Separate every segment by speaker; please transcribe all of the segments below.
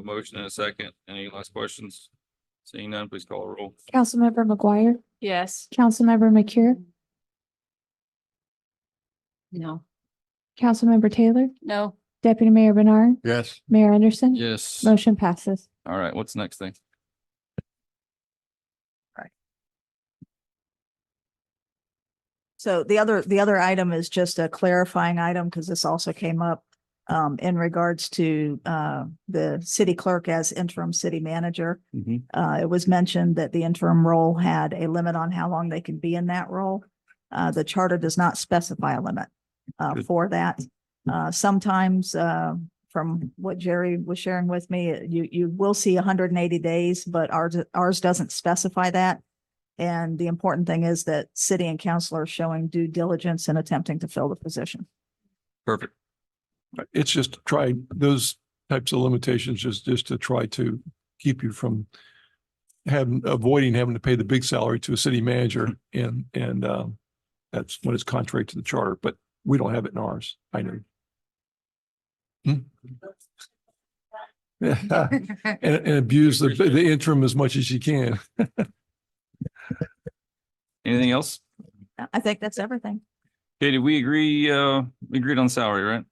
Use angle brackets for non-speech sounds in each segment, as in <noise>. Speaker 1: A Motion and a second. Any last questions? Seeing none, please call a roll.
Speaker 2: Councilmember McGuire,
Speaker 3: Yes.
Speaker 2: Councilmember McCure,
Speaker 3: No.
Speaker 2: Councilmember Taylor,
Speaker 4: <laughs>
Speaker 3: No.
Speaker 2: Deputy Mayor Bernard,
Speaker 5: Yes.
Speaker 2: Mayor Anderson.
Speaker 1: Yes.
Speaker 2: Motion passes.
Speaker 1: All right, what's next thing?
Speaker 4: So the other, the other item is just a clarifying item because this also came up um, in regards to uh, the city clerk as interim city manager.
Speaker 5: Mhm.
Speaker 4: Uh, it was mentioned that the interim role had a limit on how long they can be in that role. Uh, the charter does not specify a limit uh,
Speaker 1: Good.
Speaker 4: for that. Uh, sometimes uh, from what Jerry was sharing with me, you, you will see hundred and eighty days, but ours, ours doesn't specify that. And the important thing is that city and council are showing due diligence in attempting to fill the position.
Speaker 1: Perfect.
Speaker 5: It's just to try those types of limitations, just, just to try to keep you from having, avoiding having to pay the big salary to a city manager and, and, um, that's what is contrary to the charter, but we don't have it in ours. I know. Hmm? <laughs> And, and abuse the, the interim as much as you can.
Speaker 1: Anything else?
Speaker 4: I think that's everything.
Speaker 1: Okay, did we agree, uh, we agreed on salary, right?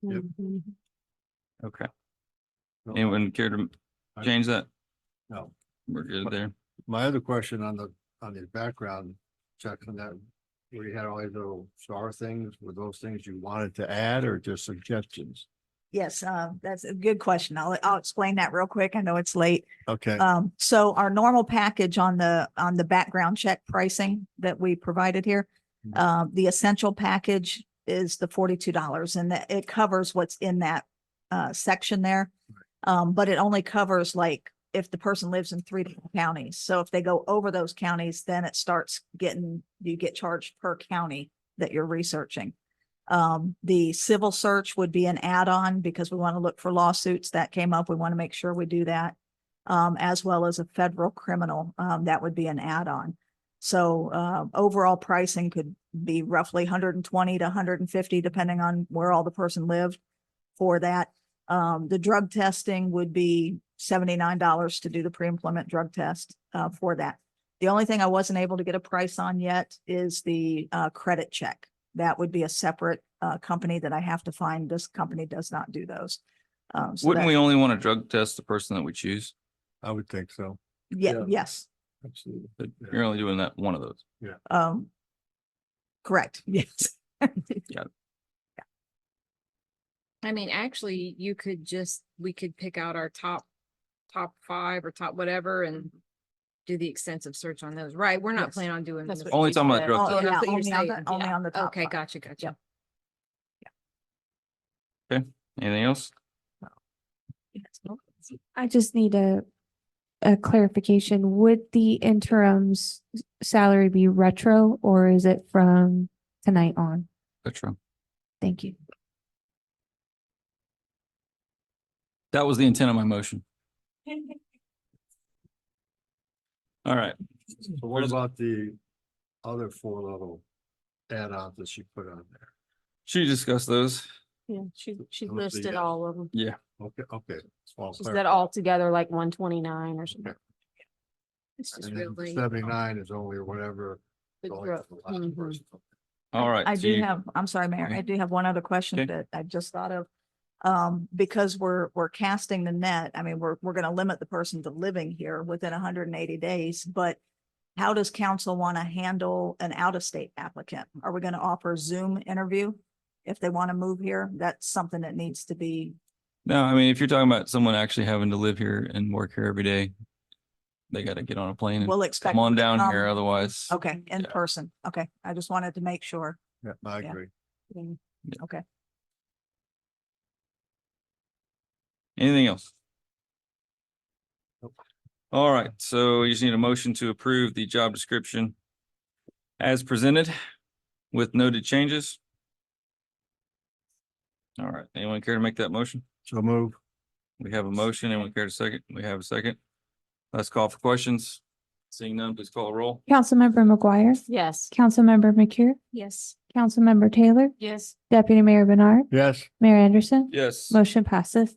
Speaker 5: Yep.
Speaker 3: Mm-hmm.
Speaker 1: Okay. Anyone care to
Speaker 6: I-
Speaker 1: change that?
Speaker 6: No.
Speaker 1: We're good there.
Speaker 6: My other question on the, on the background check on that, where you had all these little star things, were those things you wanted to add or just suggestions?
Speaker 4: Yes, uh, that's a good question. I'll, I'll explain that real quick. I know it's late.
Speaker 6: Okay,
Speaker 4: Um, so our normal package on the, on the background check pricing that we provided here,
Speaker 6: Mhm.
Speaker 4: uh, the essential package is the forty-two dollars and that it covers what's in that, uh, section there. Um, but it only covers like if the person lives in three different counties. So if they go over those counties, then it starts getting, you get charged per county that you're researching. Um, the civil search would be an add-on because we want to look for lawsuits that came up. We want to make sure we do that um, as well as a federal criminal, um, that would be an add-on. So, uh, overall pricing could be roughly hundred and twenty to hundred and fifty, depending on where all the person lived for that. Um, the drug testing would be seventy-nine dollars to do the pre-employment drug test, uh, for that. The only thing I wasn't able to get a price on yet is the, uh, credit check. That would be a separate, uh, company that I have to find. This company does not do those. Um, so
Speaker 1: Wouldn't
Speaker 4: that-
Speaker 1: we only want to drug test the person that we choose?
Speaker 6: I would think so.
Speaker 4: Yeah,
Speaker 6: yeah.
Speaker 4: yes.
Speaker 6: Absolutely.
Speaker 1: But You're only doing that one of those.
Speaker 4: Um, correct, <laughs> yes.
Speaker 3: I mean, actually, you could just, we could pick out our top, top five or top whatever and do the extensive search on those. Right, we're not
Speaker 4: Mm-hmm. Yes.
Speaker 3: planning on doing.
Speaker 4: That's
Speaker 3: this
Speaker 4: what
Speaker 1: Only
Speaker 3: piece
Speaker 1: talking
Speaker 3: of
Speaker 1: about
Speaker 3: it.
Speaker 1: drug
Speaker 3: Oh,
Speaker 4: testing.
Speaker 3: that's what you're
Speaker 4: Yeah, only on
Speaker 3: saying.
Speaker 4: the- only
Speaker 3: Yeah.
Speaker 4: on the top
Speaker 3: Okay,
Speaker 4: five.
Speaker 3: gotcha, gotcha.
Speaker 4: Yep.
Speaker 1: Anything else?
Speaker 2: I just need a, a clarification. Would the interim's salary be retro or is it from tonight on?
Speaker 1: That's true.
Speaker 2: Thank you.
Speaker 1: That was the intent of my
Speaker 4: <laughs>
Speaker 1: motion. All right.
Speaker 6: So what
Speaker 1: There's-
Speaker 6: about the other four little add-ons that she put on there?
Speaker 1: Should we discuss those?
Speaker 7: Yeah, she, she
Speaker 6: Those are
Speaker 7: listed
Speaker 6: yes.
Speaker 7: all of them.
Speaker 6: Okay, okay. it's all
Speaker 7: She said
Speaker 6: clarified.
Speaker 7: all together like one twenty-nine or something.
Speaker 3: It's just
Speaker 6: And then
Speaker 3: really-
Speaker 6: Seventy-nine is only whatever.
Speaker 7: The
Speaker 6: going
Speaker 7: growth.
Speaker 6: to the last
Speaker 7: Mhm.
Speaker 3: mm-hmm.
Speaker 6: person.
Speaker 1: All right.
Speaker 4: I
Speaker 1: so
Speaker 4: do
Speaker 1: you-
Speaker 4: have, I'm sorry, Mayor,
Speaker 1: Okay.
Speaker 4: I do have one other question
Speaker 1: Okay.
Speaker 4: that I just thought of. Um, because we're, we're casting the net, I mean, we're, we're gonna limit the person to living here within hundred and eighty days, but how does council wanna handle an out-of-state applicant? Are we gonna offer Zoom interview if they wanna move here? That's something that needs to be,
Speaker 1: No, I mean, if you're talking about someone actually having to live here and work here every day, they got to get on a plane and
Speaker 4: we'll expect.
Speaker 1: come on down
Speaker 4: um,
Speaker 1: here. Otherwise,
Speaker 4: Okay, in
Speaker 1: Yeah.
Speaker 4: person, okay, I just wanted to make sure.
Speaker 6: Yeah, I
Speaker 4: Yeah.
Speaker 6: agree.
Speaker 1: anything else?
Speaker 6: Nope.
Speaker 1: All right. So you just need a motion to approve the job description as presented with noted changes. All right. Anyone care to make that motion?
Speaker 6: So move.
Speaker 1: We have a motion. Anyone care to second? We have a second. Let's call for questions. Seeing none, please call a roll.
Speaker 2: Councilmember McGuire,
Speaker 7: Yes.
Speaker 2: Councilmember McCure,
Speaker 3: Yes.
Speaker 2: Councilmember Taylor,
Speaker 7: Yes.
Speaker 2: Deputy Mayor Bernard,
Speaker 6: Yes.
Speaker 2: Mayor Anderson.
Speaker 1: Yes.
Speaker 2: Motion passes.